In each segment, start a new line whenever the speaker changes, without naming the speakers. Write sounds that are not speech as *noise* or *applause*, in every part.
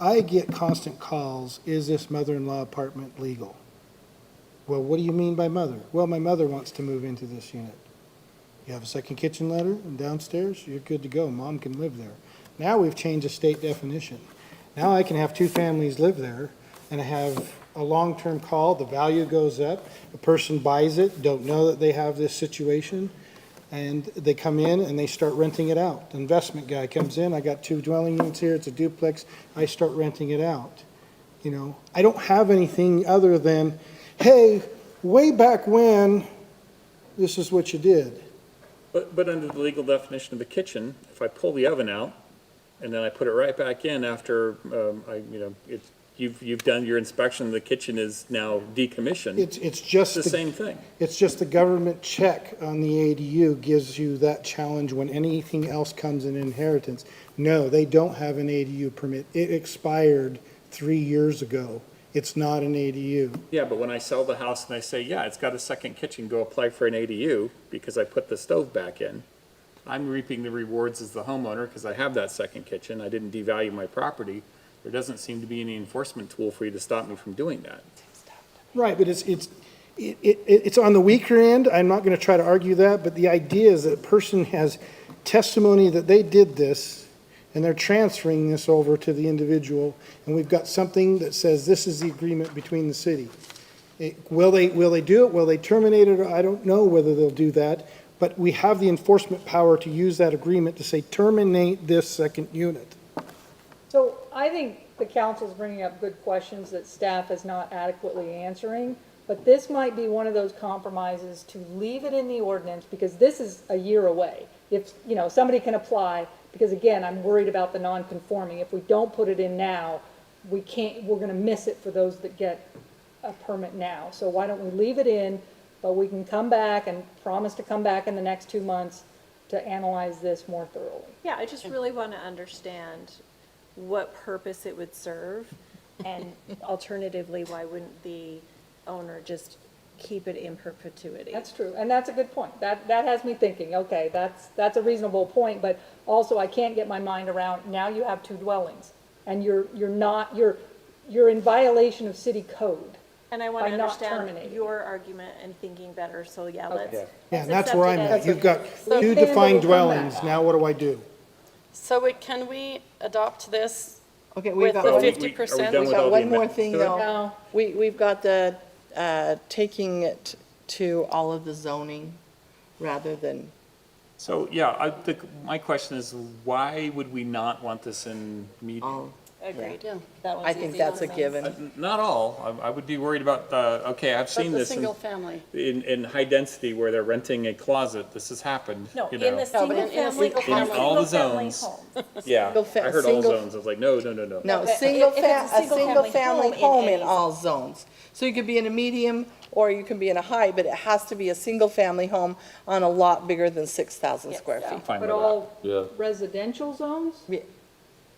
I get constant calls, is this mother-in-law apartment legal? Well, what do you mean by mother? Well, my mother wants to move into this unit. You have a second kitchen letter and downstairs, you're good to go. Mom can live there. Now we've changed the state definition. Now I can have two families live there and have a long-term call, the value goes up, a person buys it, don't know that they have this situation, and they come in and they start renting it out. The Investment guy comes in, I got two dwelling units here, it's a duplex, I start renting it out. You know, I don't have anything other than, hey, way back when, this is what you did.
But, but under the legal definition of a kitchen, if I pull the oven out and then I put it right back in after, um, I, you know, it's, you've, you've done your inspection, the kitchen is now decommissioned,
It's, it's
it's
just,
the
the-
same thing.
it's just the government check on the ADU gives you that challenge when anything else comes in inheritance. No, they don't have an ADU permit. It expired three years ago. It's not an ADU.
Yeah, but when I sell the house and I say, yeah, it's got a second kitchen, go apply for an ADU because I put the stove back in, I'm reaping the rewards as the homeowner because I have that second kitchen, I didn't devalue my property. There doesn't seem to be any enforcement tool for you to stop me from doing that.
Right, but it's, it's, it, it, it's on the weaker end, I'm not gonna try to argue that, but the idea is that a person has testimony that they did this, and they're transferring this over to the individual, and we've got something that says this is the agreement between the city. It- Will they, will they do it, will they terminate it, I don't know whether they'll do that, but we have the enforcement power to use that agreement to say terminate this second unit.
So I think the council's bringing up good questions that staff is not adequately answering, but this might be one of those compromises to leave it in the ordinance, because this is a year away. If, you know, somebody can apply, because again, I'm worried about the non-conforming. If we don't put it in now, we can't, we're gonna miss it for those that get a permit now. So why don't we leave it in, but we can come back and promise to come back in the next two months to analyze this more thoroughly.
Yeah, I just really want to understand what purpose it would serve, and alternatively, why wouldn't the owner just keep it in perpetuity?
That's true, and that's a good point. That, that has me thinking, okay, that's, that's a reasonable point, but also I can't get my mind around, now you have two dwellings, and you're, you're not, you're, you're in violation of city code.
And I want to
By not
understand
terminating.
your argument and thinking better, so yeah,
Okay.
let's.
Yeah.
Yeah, and
let's
that's where I'm
accept it
at,
as-
you've got
So-
two defined dwellings, now what do I do?
So we- can we adopt this
Okay, we've
with
got,
the
Well, we- we-
one-
are we
50%?
done
we've
with
got
all the
one more
amendments
thing,
to it?
though.
No.
We, we've got the, uh, taking it to all of the zoning rather than,
So, yeah, I think, my question is, why would we not want this in meeting?
all.
Agreed.
I think that's a given.
Not all, I, I would be worried about the, okay, I've seen
But the
this in,
single family.
in, in high density where they're renting a closet, this has happened,
No,
you
in
know?
the single family, in
single
a
family. In all
single
the
family
zones.
home.
Yeah,
Single fa-
I heard all
single-
zones, I was like, no, no, no, no.
No,
But if
single
it's a
fa, a single
single-family
family
home in
home in
any-
all zones. So you could be in a medium or you can be in a high, but it has to be a single family home on a lot bigger than six thousand square feet.
Fine with
But
that.
all
Yeah.
residential zones,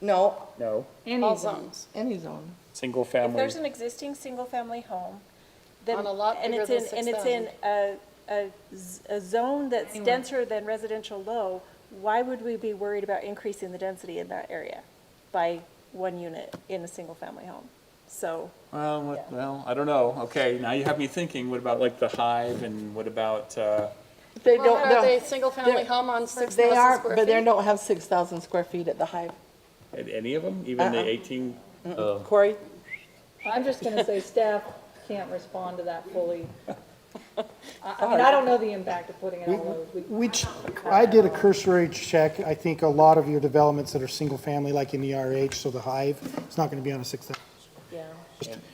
No,
No,
any
All
zone.
zones.
any zone.
single
If
family,
there's an existing single-family home, then.
On a lot
and
bigger
it's
than
in- And it's in a, a, z- a zone that's
Anyway.
denser than residential low, why would we be worried about increasing the density in that area by one unit in a single-family home? So,
well, what- well, I don't know, okay, now you have me thinking, what about like the hive and what about, uh,
They
Well,
don't,
Are they
no,
single family
they're-
home on 6,000
they are,
square
but they
feet?
don't have six thousand square feet at the Hive.
a- any of them, even the
Uh-uh.
eighteen?
Corey?
I'm just gonna say staff can't respond to that
*laughs*
fully. I, I mean, I don't know the impact of putting it on those. We-
Which, I did a cursory check, I think a lot of your developments that are single-family, like in the RH, so the Hive, it's not gonna be on a six thousand.
yeah.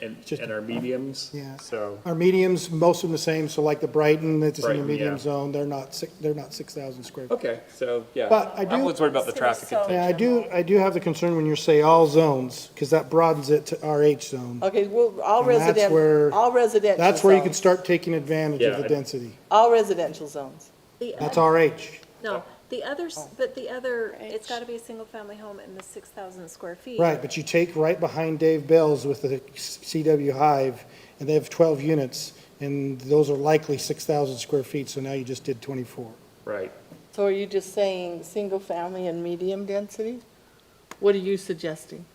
And,
Just-
and our mediums?
Yeah.
So,
Our mediums, most of them the same, so like the Brighton, it's in the
Brighton, yeah.
medium zone, they're not six, they're not six thousand square. feet.
okay, so, yeah.
But I
I
do-
was worried about the traffic.
So-
Yeah, I do, I do have the concern when you say all zones, because that broadens it to RH
Oh,
zone.
Okay, well, all
And that's where-
resident, all residential.
That's where you can
zones.
start taking advantage
Yeah,
of
I-
the density.
All residential zones.
The
That's Oh.
oth-
RH.
No, the others, but the other, it's gotta be a single-family home in the six thousand square feet.
Right, but you take right behind Dave Bell's with the CW Hive, and they have 12 units, and those are likely 6,000 square feet, so now you just did 24.
Right.
So are you just saying single family and medium density? What are you suggesting?